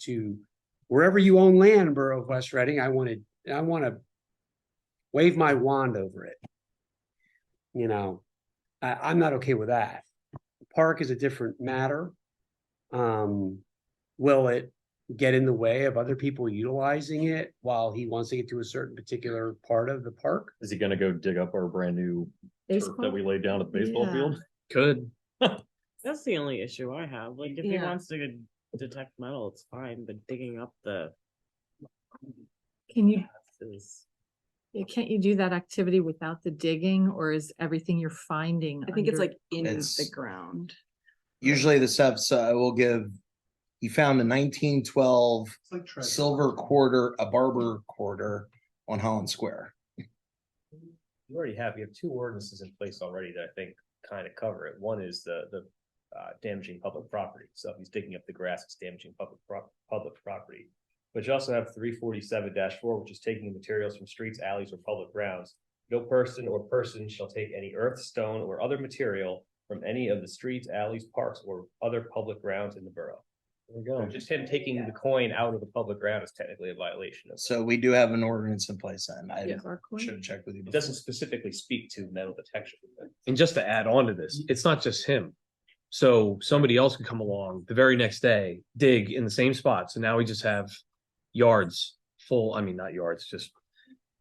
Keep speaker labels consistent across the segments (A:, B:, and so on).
A: to wherever you own land in Borough of West Reading, I wanted, I want to wave my wand over it. You know, I, I'm not okay with that. Park is a different matter. Um, will it get in the way of other people utilizing it while he wants to get to a certain particular part of the park?
B: Is he gonna go dig up our brand new turf that we laid down at the baseball
C: Yeah.
B: field?
D: Could.
C: That's the only issue I have. Like, if he
E: Yeah.
C: wants to detect metal, it's fine, but digging up the
E: Can you,
C: is.
E: yeah, can't you do that activity without the digging or is everything you're finding?
F: I think it's
E: under-
F: like in the
G: It's-
F: ground.
G: Usually the stuff's, uh, will give, he found a nineteen twelve silver quarter, a barber quarter on Holland Square.
H: You already have, you have two ordinances in place already that I think kind of cover it. One is the, the uh, damaging public property. So if he's digging up the grass, it's damaging public, prop- public property. But you also have three forty-seven four, which is taking the materials from streets, alleys, or public grounds. No person or person shall take any earth, stone, or other material from any of the streets, alleys, parks, or other public grounds in the borough.
B: There we
H: So
B: go.
H: Just him taking the coin out of the public ground is technically a violation of.
G: So we do have an ordinance in place then. I
E: Yeah, our coin.
G: should have checked with you.
H: It
G: before.
H: doesn't specifically speak to metal detection. but-
D: And just to add on to this, it's not just him. So somebody else could come along the very next day, dig in the same spot. So now we just have yards full, I mean, not yards, just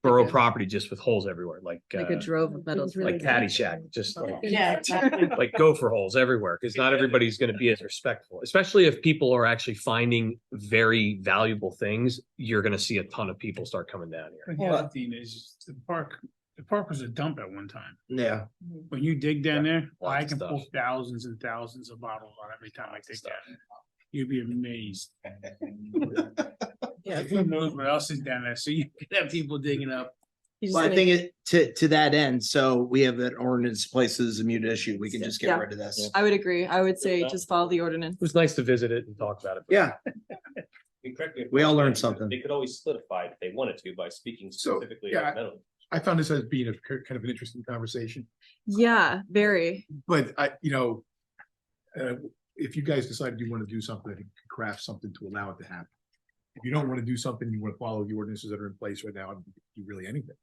D: borough
E: Like a-
D: property just with holes everywhere, like, uh,
E: Like a drove of metals.
D: like
E: detecting.
D: Caddyshack, just
E: Okay.
C: Yeah, exactly.
D: like gopher holes everywhere because not everybody's going to be as respectful, especially if people are actually finding very valuable things. You're going to see a ton of people start coming down here.
I: But the other thing is, the park, the park was a dump at one time.
G: Yeah.
I: When you dig down there,
D: Lots
I: I
D: of
I: can
D: stuff.
I: pull thousands and thousands of bottles out every time I
G: Lots of
I: dig
G: stuff.
I: down. You'd be amazed. Who knows what else is down there? So you could have people digging up.
C: He's
G: Well, I
C: gonna-
G: think it, to, to that end, so we have that ordinance places a mute issue. We can just get
F: Yeah.
G: rid of this.
F: I would agree. I would say just follow the ordinance.
D: It was nice to visit it and talk about it. but-
G: Yeah,
H: You correct me if
G: We all
H: I'm
G: learned
H: wrong, but
G: something.
H: They could always solidify it if they wanted to by speaking
J: So,
H: specifically
J: yeah,
H: about metal.
J: I found this as being a k- kind of an interesting conversation,
F: Yeah, very.
J: but I, you know. Uh, if you guys decide you want to do something, craft something to allow it to happen. If you don't want to do something, you want to follow the ordinances that are in place right now, and do really anything.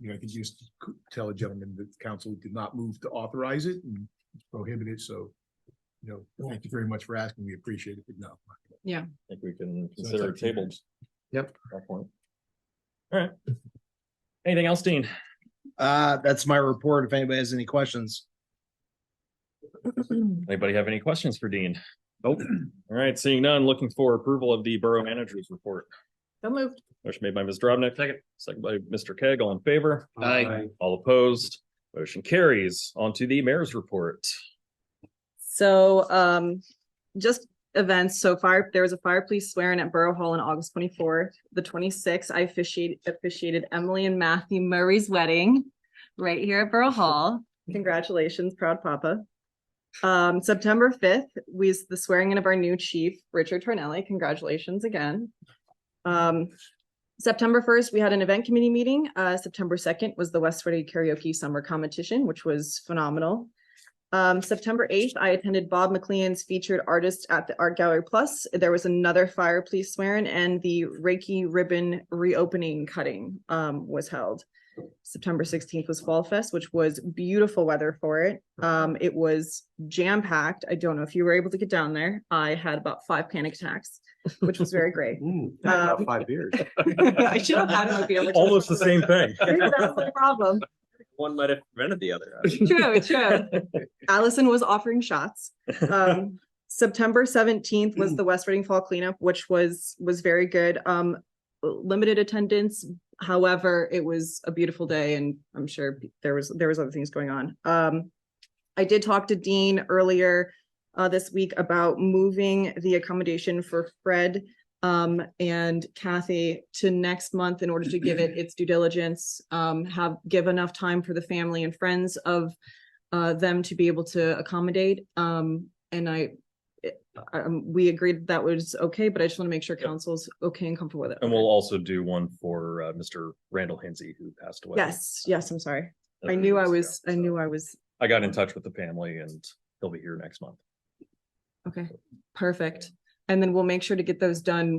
J: You know, I think you just c- tell a gentleman that the council did not move to authorize it and prohibit it, so. You know, thank you very much for asking. We appreciate it, but no.
B: I think we can
J: it's
B: consider
J: up
B: it
J: to you.
B: tabled.
D: Yep.
B: That point. All right. Anything else, Dean?
G: Uh, that's my report. If anybody has any questions.
B: Anybody have any questions for Dean? Nope. All right, seeing none, looking for approval of the Borough Manager's Report.
F: So moved.
B: Motion made by Ms. Drobnik. Second. Second by Mr. Keg, all in favor?
D: Aye.
A: Um,
B: All opposed? Motion carries. On to the Mayor's Report.
F: So um, just events. So fire, there was a fire police swearing at Borough Hall on August twenty-fourth. The twenty-sixth, I officiated officiated Emily and Matthew Murray's wedding right here at Borough Hall. Congratulations, proud papa. Um, September fifth was the swearing in of our new chief, Richard Tornelli. Congratulations again. Um, September first, we had an event committee meeting. Uh, September second was the West Reading Karaoke Summer Competition, which was phenomenal. Um, September eighth, I attended Bob McLean's featured artist at the Art Gallery Plus. There was another fire police swearing and the Reiki ribbon reopening cutting um was held. September sixteenth was Fall Fest, which was beautiful weather for it. Um, it was jam packed. I don't know if you were able to get down there. I had about five panic attacks, which was very great. Uh, about
J: five years.
F: I should have had a beer. which is-
B: Almost the same thing.
F: That's the problem.
H: One might have prevented the other.
F: True, true. Allison was offering shots. Um, September seventeenth was the West Reading Fall Cleanup, which was, was very good. Um, limited attendance. However, it was a beautiful day and I'm sure there was, there was other things going on. Um, I did talk to Dean earlier, uh, this week about moving the accommodation for Fred um, and Kathy to next month in order to give it its due diligence, um, have, give enough time for the family and friends of uh, them to be able to accommodate. Um, and I, it- um, we agreed that was okay, but I just want to make sure
B: Yep.
F: council's okay and comfortable with it.
B: And we'll also do one for uh, Mr. Randall Hensy, who passed away.
F: Yes, yes, I'm sorry.
B: a
F: I
B: few
F: knew
B: weeks
F: I
B: ago,
F: was, I
B: so.
F: knew I was,
B: I got in touch with the family and he'll be here next month.
F: okay, perfect. And then we'll make sure to get those done